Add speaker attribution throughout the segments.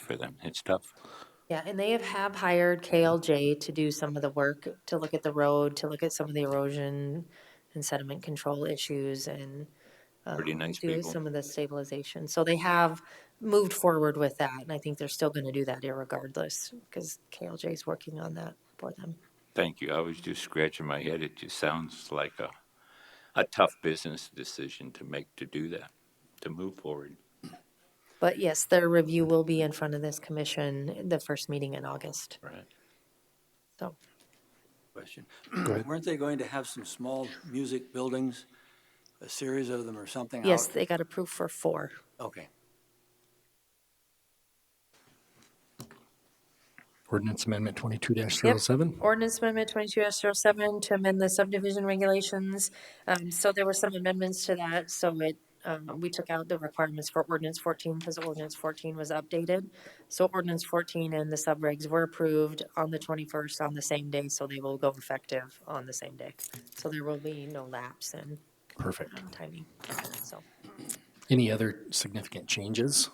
Speaker 1: for them. It's tough.
Speaker 2: Yeah, and they have, have hired KLJ to do some of the work, to look at the road, to look at some of the erosion and sediment control issues and. um,
Speaker 1: Pretty nice
Speaker 2: Do
Speaker 1: people.
Speaker 2: some of the stabilization. So they have moved forward with that, and I think they're still gonna do that irregardless, because KLJ is working on that for them.
Speaker 1: Thank you. I was just scratching my head. It just sounds like a, a tough business decision to make to do that, to move forward.
Speaker 2: But yes, their review will be in front of this commission, the first meeting in August,
Speaker 1: Right.
Speaker 2: so.
Speaker 3: Question.
Speaker 4: Go ahead.
Speaker 3: Weren't they going to have some small music buildings, a series of them or something? out-
Speaker 2: Yes, they got approved for four.
Speaker 3: Okay.
Speaker 4: Ordinance Amendment twenty-two 7
Speaker 2: Ordinance Amendment twenty-two 7 to amend the subdivision regulations. Um, so there were some amendments to that, so it, um, we took out the requirements for ordinance fourteen because ordinance fourteen was updated. So ordinance fourteen and the subregs were approved on the twenty-first on the same day, so they will go effective on the same day. So there will be no lapse in
Speaker 4: Perfect.
Speaker 2: timing, so.
Speaker 4: Any other significant changes?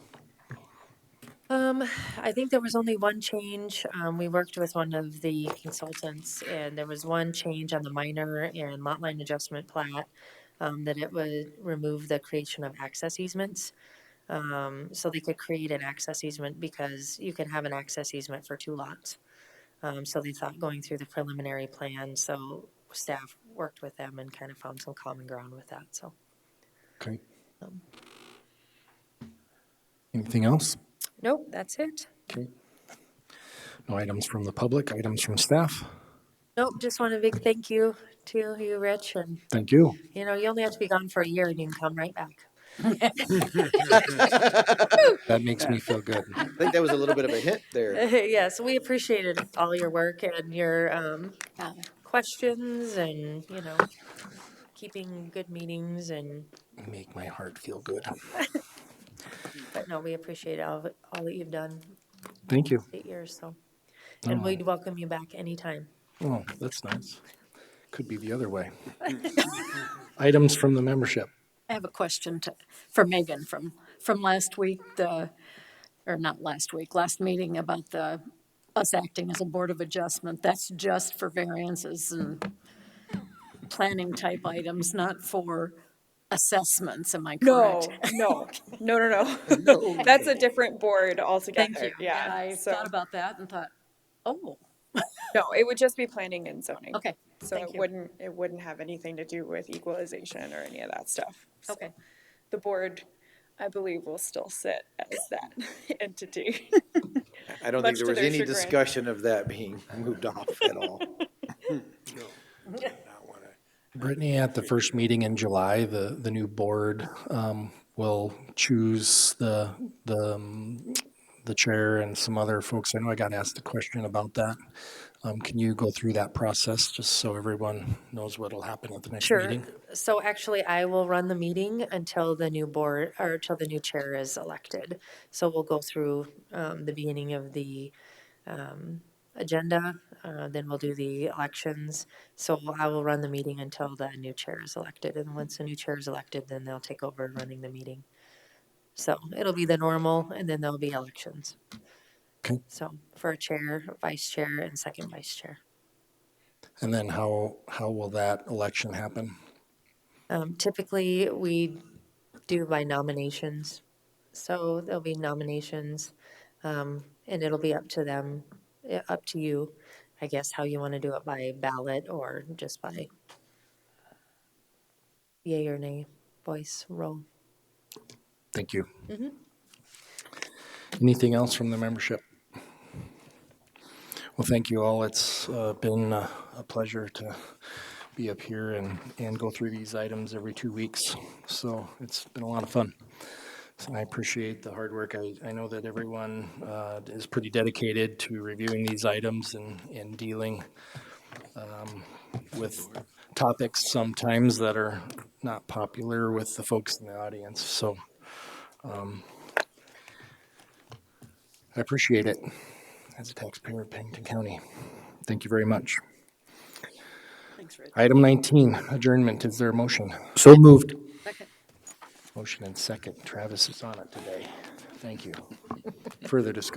Speaker 2: Um, I think there was only one change. Um, we worked with one of the consultants and there was one change on the minor and lot line adjustment plat. Um, that it would remove the creation of access easements. Um, so they could create an access easement because you can have an access easement for two lots. Um, so they thought going through the preliminary plan, so staff worked with them and kind of found some common ground with that, so.
Speaker 4: Okay. Anything else?
Speaker 2: Nope, that's it.
Speaker 4: Okay. No items from the public, items from staff?
Speaker 2: Nope, just want a big thank you to you, Rich, and
Speaker 4: Thank you.
Speaker 2: You know, you only have to be gone for a year and you can come right back.
Speaker 4: That makes me feel good.
Speaker 5: I think that was a little bit of a hint there.
Speaker 2: yes, we appreciated all your work and your um, questions and, you know, keeping good meetings and,
Speaker 4: Make my heart feel good.
Speaker 2: but no, we appreciate all, of it- all that you've done
Speaker 4: Thank you.
Speaker 2: eight years, so. And we'd welcome you back anytime.
Speaker 4: Oh, that's nice. Could be the other way. Items from the membership.
Speaker 6: I have a question to, for Megan from, from last week, the, or not last week, last meeting about the, us acting as a board of adjustment. That's just for variances and planning type items, not for assessments, am I
Speaker 7: No,
Speaker 6: correct?
Speaker 7: no, no, no, no. That's a different board altogether.
Speaker 6: Thank you.
Speaker 7: Yeah.
Speaker 6: I
Speaker 7: so
Speaker 6: thought about that and thought, oh,
Speaker 7: no, it would just be planning and zoning.
Speaker 6: okay,
Speaker 7: So
Speaker 6: thank
Speaker 7: it
Speaker 6: you.
Speaker 7: wouldn't it wouldn't have anything to do with equalization or any of that stuff. So
Speaker 6: okay.
Speaker 7: The board, I believe, will still sit as that entity.
Speaker 5: I don't
Speaker 7: Much
Speaker 5: think
Speaker 7: to
Speaker 5: there was
Speaker 7: their
Speaker 5: any
Speaker 7: chagrin.
Speaker 5: discussion of that being moved off at all.
Speaker 4: Brittany, at the first meeting in July, the, the new board um, will choose the, the, um, the chair and some other folks. I know I got asked a question about that. Um, Can you go through that process, just so everyone knows what'll happen at the next meeting?
Speaker 2: So actually, I will run the meeting until the new board, or until the new chair is elected. So we'll go through um, the beginning of the um, agenda, uh, then we'll do the elections. So I will run the meeting until the new chair is elected, and once the new chair is elected, then they'll take over running the meeting. So it'll be the normal, and then there'll be elections.
Speaker 4: Okay.
Speaker 2: So for a chair, vice chair, and second vice chair.
Speaker 4: And then how, how will that election happen?
Speaker 2: Um, Typically, we do by nominations. So there'll be nominations, um, and it'll be up to them, eh, up to you, I guess, how you want to do it by ballot or just by yay or nay, voice, roll.
Speaker 4: Thank you. Anything else from the membership? Well, thank you all. It's uh, been uh, a pleasure to be up here and, and go through these items every two weeks. So it's been a lot of fun. So I appreciate the hard work. I, I know that everyone uh, is pretty dedicated to reviewing these items and, and dealing um, with topics sometimes that are not popular with the folks in the audience. So um, I appreciate it as a taxpayer of Pennington County. Thank you very much.
Speaker 6: Thanks, Rich.
Speaker 4: Item 19, adjournment. Is there a motion?
Speaker 5: So moved.
Speaker 6: Second.
Speaker 4: Motion and second. Travis is on it today. Thank you. Further discussion?